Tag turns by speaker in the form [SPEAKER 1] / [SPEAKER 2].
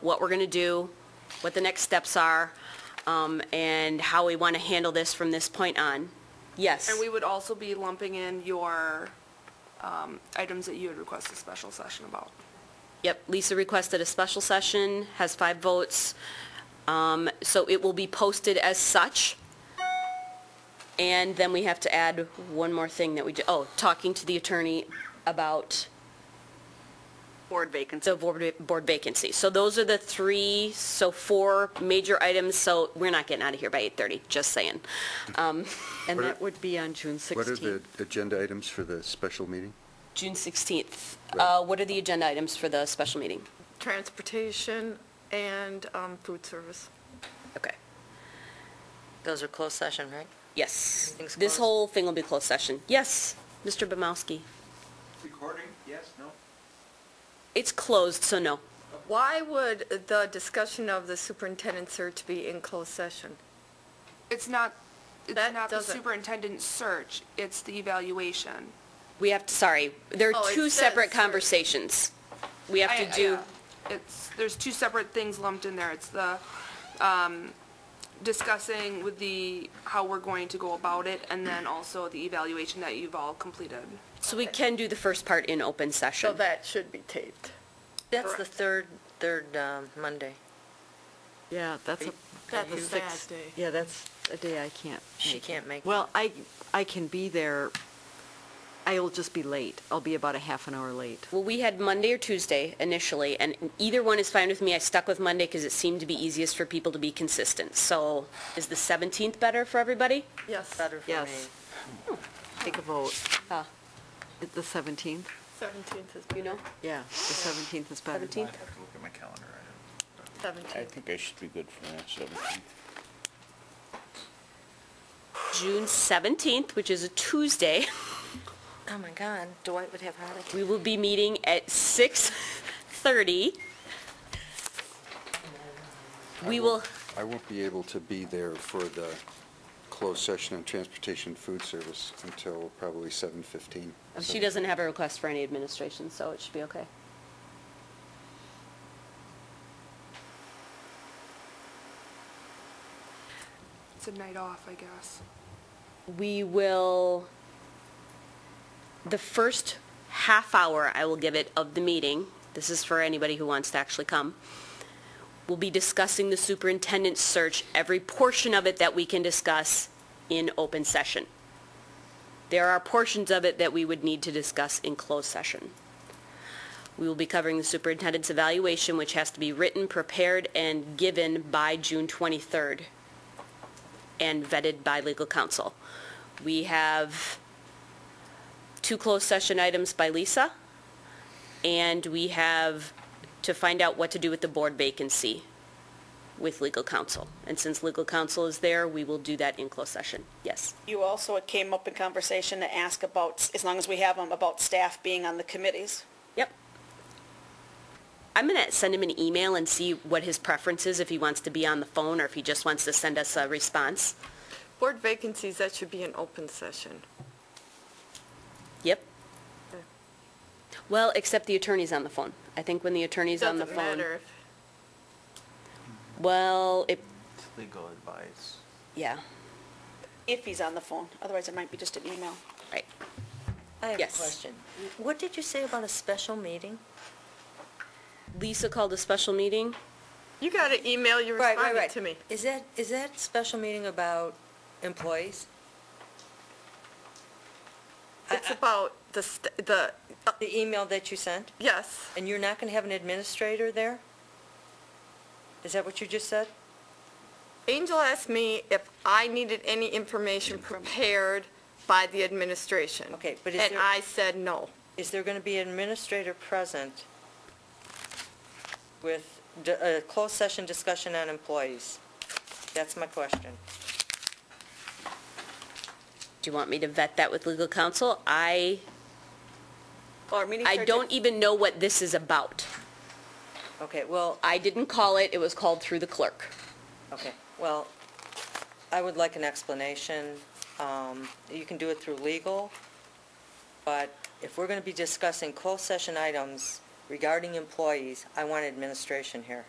[SPEAKER 1] what we're going to do, what the next steps are, um, and how we want to handle this from this point on. Yes.
[SPEAKER 2] And we would also be lumping in your um, items that you had requested special session about.
[SPEAKER 1] Yep, Lisa requested a special session, has five votes, um, so it will be posted as such. And then we have to add one more thing that we, do. oh, talking to the attorney about
[SPEAKER 3] Board vacancy.
[SPEAKER 1] the board board vacancy. So those are the three, so four major items, so we're not getting out of here by 8:30, just saying. Um,
[SPEAKER 4] What
[SPEAKER 3] And
[SPEAKER 4] are-
[SPEAKER 3] that would be on June
[SPEAKER 4] What are the
[SPEAKER 3] 16th.
[SPEAKER 4] agenda items for the special meeting?
[SPEAKER 1] June 16th. Uh, What are the agenda items for the special meeting?
[SPEAKER 5] Transportation and um, food service.
[SPEAKER 1] Okay.
[SPEAKER 6] Those are closed session, right?
[SPEAKER 1] Yes.
[SPEAKER 6] Everything's
[SPEAKER 1] This
[SPEAKER 6] closed.
[SPEAKER 1] whole thing will be closed session. Yes, Mr. Bumowski.
[SPEAKER 7] Recording, yes, no?
[SPEAKER 1] It's closed, so no.
[SPEAKER 5] Why would the discussion of the superintendent search be in closed session?
[SPEAKER 2] It's not, it's
[SPEAKER 5] That
[SPEAKER 2] not the
[SPEAKER 5] doesn't-
[SPEAKER 2] superintendent's search, it's the evaluation.
[SPEAKER 1] We have, to. sorry, there
[SPEAKER 5] Oh,
[SPEAKER 1] are
[SPEAKER 5] it
[SPEAKER 1] two
[SPEAKER 5] says
[SPEAKER 1] separate
[SPEAKER 5] search.
[SPEAKER 1] conversations. We have
[SPEAKER 2] I-
[SPEAKER 1] to do,
[SPEAKER 2] yeah. It's, there's two separate things lumped in there. It's the um, discussing with the, how we're going to go about it, and then also the evaluation that you've all completed.
[SPEAKER 1] so we can do the first part in open
[SPEAKER 5] So
[SPEAKER 1] session.
[SPEAKER 5] that should be taped.
[SPEAKER 6] That's the third, third um, Monday.
[SPEAKER 3] Yeah, that's a.
[SPEAKER 5] That's a
[SPEAKER 3] you fix-
[SPEAKER 5] sad day.
[SPEAKER 3] Yeah, that's a day I can't.
[SPEAKER 6] She
[SPEAKER 3] make it.
[SPEAKER 6] can't make it.
[SPEAKER 3] Well, I, I can be there. I'll just be late. I'll be about a half an hour late.
[SPEAKER 1] Well, we had Monday or Tuesday initially, and either one is fine with me. I stuck with Monday because it seemed to be easiest for people to be consistent. So is the 17th better for everybody?
[SPEAKER 5] Yes.
[SPEAKER 6] Better for me.
[SPEAKER 3] Yes. Take a vote.
[SPEAKER 1] Ah.
[SPEAKER 3] It- The 17th?
[SPEAKER 5] 17th is,
[SPEAKER 1] You know,
[SPEAKER 3] Yeah, the 17th is better.
[SPEAKER 1] 17th?
[SPEAKER 7] I have to look at my calendar. I don't- I
[SPEAKER 5] 17th.
[SPEAKER 7] think I should be good for that, 17th.
[SPEAKER 1] June 17th, which is a Tuesday,
[SPEAKER 6] Oh, my God, Dwight would have heartache.
[SPEAKER 1] we will be meeting at 6:30. We will,
[SPEAKER 4] I won't be able to be there for the closed session on transportation food service until probably 7:15.
[SPEAKER 1] Oh, she doesn't have a request for any administration, so it should be okay.
[SPEAKER 2] It's a night off, I guess.
[SPEAKER 1] we will, the first half hour I will give it of the meeting, this is for anybody who wants to actually come, we'll be discussing the superintendent's search, every portion of it that we can discuss in open session. There are portions of it that we would need to discuss in closed session. We will be covering the superintendent's evaluation, which has to be written, prepared, and given by June 23rd and vetted by legal counsel. We have two closed session items by Lisa, and we have to find out what to do with the board vacancy with legal counsel. And since legal counsel is there, we will do that in closed session. Yes.
[SPEAKER 8] You also came up in conversation to ask about, as long as we have them, about staff being on the committees.
[SPEAKER 1] Yep. I'm going to send him an email and see what his preference is, if he wants to be on the phone or if he just wants to send us a response.
[SPEAKER 5] Board vacancies, that should be an open session.
[SPEAKER 1] Yep. Well, except the attorney's on the phone. I think when the attorney's on the phone.
[SPEAKER 5] Doesn't matter if
[SPEAKER 1] Well, it,
[SPEAKER 7] It's Legal advice.
[SPEAKER 1] yeah,
[SPEAKER 8] If he's on the phone, otherwise it might be just an email.
[SPEAKER 1] right.
[SPEAKER 6] I have a
[SPEAKER 1] Yes.
[SPEAKER 6] question. What did you say about a special meeting?
[SPEAKER 1] Lisa called a special meeting.
[SPEAKER 5] You got an email, you responded to me.
[SPEAKER 6] Is that, is that special meeting about employees? I-
[SPEAKER 5] It's about the, st- the, uh,
[SPEAKER 6] The email that you sent?
[SPEAKER 5] yes.
[SPEAKER 6] And you're not going to have an administrator there? Is that what you just said?
[SPEAKER 5] Angel asked me if I needed any information prepared by the administration.
[SPEAKER 6] Okay, but is
[SPEAKER 5] And
[SPEAKER 6] there-
[SPEAKER 5] I said no.
[SPEAKER 6] Is there going to be an administrator present with d- a closed session discussion on employees? That's my question.
[SPEAKER 1] Do you want me to vet that with legal counsel? I,
[SPEAKER 8] Or meeting
[SPEAKER 1] I don't even know what this is about.
[SPEAKER 6] Okay, well,
[SPEAKER 1] I didn't call it, it was called through the clerk.
[SPEAKER 6] Okay, well, I would like an explanation. Um, You can do it through legal, but if we're going to be discussing closed session items regarding employees, I want administration here.